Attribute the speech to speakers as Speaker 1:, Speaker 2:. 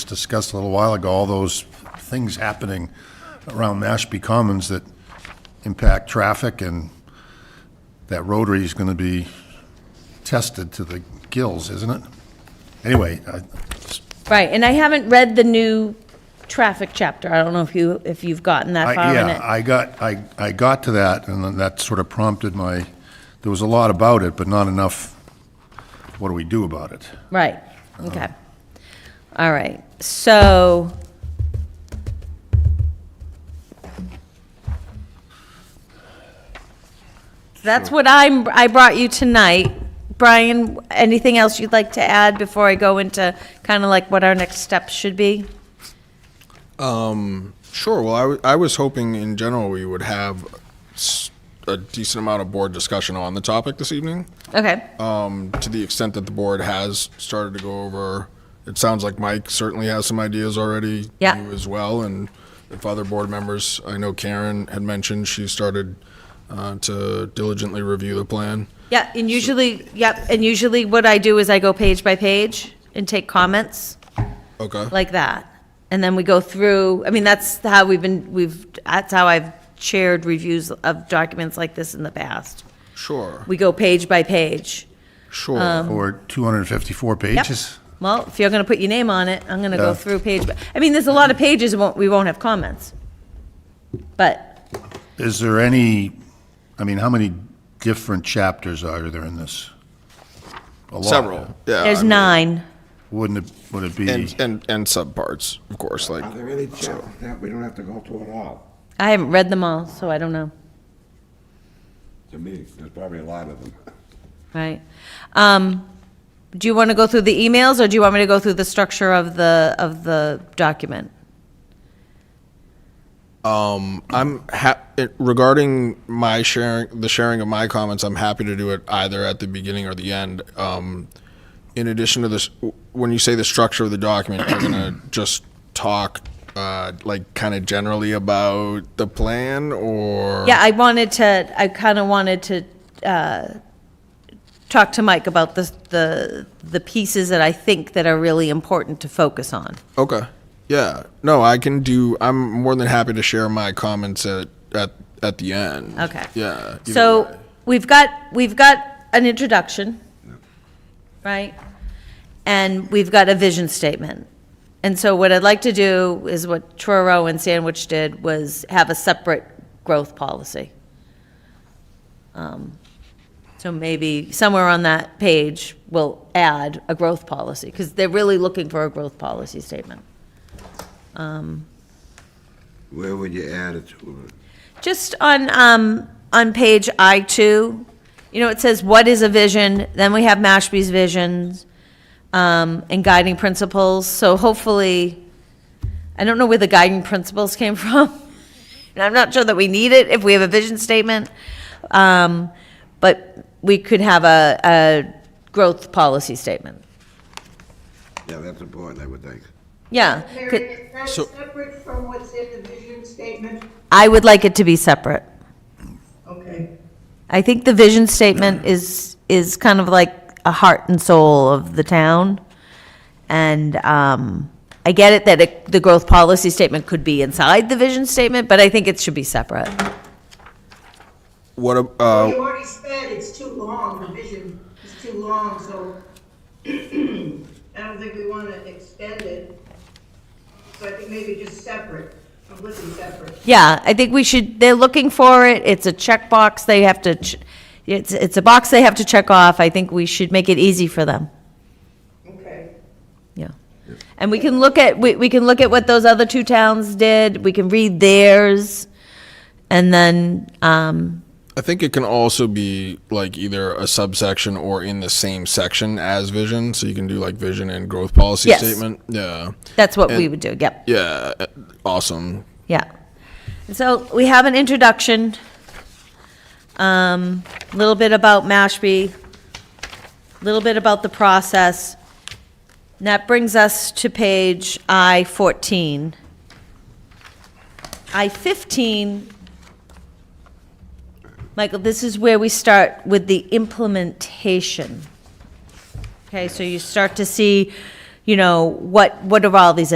Speaker 1: discussed a little while ago, all those things happening around Mashpee Commons that impact traffic and that rotary is going to be tested to the gills, isn't it? Anyway, I-
Speaker 2: Right, and I haven't read the new traffic chapter. I don't know if you, if you've gotten that
Speaker 1: I,
Speaker 2: far in
Speaker 1: yeah,
Speaker 2: it.
Speaker 1: I got, I, I got to that, and then that sort of prompted my, there was a lot about it, but not enough, what do we do about it?
Speaker 2: Right,
Speaker 1: Oh.
Speaker 2: okay. All right, so. That's what I'm, I brought you tonight. Brian, anything else you'd like to add before I go into kind of like what our next steps should be?
Speaker 3: Sure. Well, I wa- I was hoping in general we would have s- a decent amount of board discussion on the topic this evening.
Speaker 2: Okay,
Speaker 3: Um, to the extent that the board has started to go over, it sounds like Mike certainly has some ideas already.
Speaker 2: Yeah.
Speaker 3: You as well, and if other board members, I know Karen had mentioned she started uh, to diligently review the plan.
Speaker 2: yeah, and usually, yep, and usually what I do is I go page by page and take comments.
Speaker 3: Okay.
Speaker 2: like that. And then we go through, I mean, that's how we've been, we've, that's how I've chaired reviews of documents like this in the past.
Speaker 3: Sure.
Speaker 2: We go page by page.
Speaker 3: Sure.
Speaker 1: Or 254
Speaker 2: Um. Yep.
Speaker 1: pages?
Speaker 2: Well, if you're gonna put your name on it, I'm gonna go
Speaker 1: Yeah.
Speaker 2: through page, by I mean, there's a lot of pages, won't, we won't have comments. But,
Speaker 1: Is there any, I mean, how many different chapters are there in this? A lot.
Speaker 3: Several. Yeah.
Speaker 2: there's
Speaker 3: I mean,
Speaker 2: nine.
Speaker 1: Wouldn't it, would it be,
Speaker 3: And and and subparts, of course. Like.
Speaker 4: Are there any chances that we don't have to go through it all?
Speaker 2: I haven't read them all, so I don't know,
Speaker 4: To me, there's probably a lot of them.
Speaker 2: right? Um, do you wanna go through the emails, or do you want me to go through the structure of the, of the document?
Speaker 3: I'm ha- it- regarding my sharing the sharing of my comments. I'm happy to do it either at the beginning or the end. Um, in addition to this, when you say the structure of the document, you're gonna just talk uh, like kind of generally about the plan, or
Speaker 2: Yeah, I wanted to, I kind of wanted to uh, talk to Mike about the, the, the pieces that I think that are really important to focus on.
Speaker 3: Okay. Yeah. No, I can do. I'm more than happy to share my comments at at at the end.
Speaker 2: Okay.
Speaker 3: Yeah. either way.
Speaker 2: So we've got, we've got an introduction, right? And we've got a vision statement. And so what I'd like to do is what Truro and Sandwich did was have a separate growth policy. Um, So maybe somewhere on that page, we'll add a growth policy, because they're really looking for a growth policy statement.
Speaker 4: Where would you add it to?
Speaker 2: Just on, um, on page I two, you know, it says, what is a vision? Then we have Mashpee's visions, um, and guiding principles, so hopefully, I don't know where the guiding principles came from. And I'm not sure that we need it if we have a vision statement. Um, but we could have a, a growth policy statement.
Speaker 4: Yeah, that's important, I would think.
Speaker 2: Yeah.
Speaker 5: Mary,
Speaker 2: could-
Speaker 5: is that
Speaker 3: So-
Speaker 5: separate from what's in the vision statement?
Speaker 2: I would like it to be separate.
Speaker 5: Okay.
Speaker 2: I think the vision statement is, is kind of like a heart and soul of the town. And um, I get it that it- the growth policy statement could be inside the vision statement, but I think it should be separate.
Speaker 3: what? ab-
Speaker 5: Well,
Speaker 3: Uh,
Speaker 5: You already said it's too long, the vision is too long, so I don't think we want to extend it. So I think maybe just separate, I'm looking separate.
Speaker 2: Yeah, I think we should, they're looking for it, it's a checkbox they have to, ch- it's, it's a box they have to check off. I think we should make it easy for them,
Speaker 5: Okay.
Speaker 2: yeah. And we can look at, we, we can look at what those other two towns did, we can read theirs, and then, um,
Speaker 3: I think it can also be like either a subsection or in the same section as vision. So you can do like vision and growth policy
Speaker 2: Yes.
Speaker 3: statement. Yeah.
Speaker 2: That's what we
Speaker 3: And-
Speaker 2: would do, yep,
Speaker 3: Yeah. uh, Awesome.
Speaker 2: yeah. And So we have an introduction, um, a little bit about Mashpee, a little bit about the process. And that brings us to page I fourteen. I fifteen, Michael, this is where we start with the implementation. Okay, so you start to see, you know, what, what are all these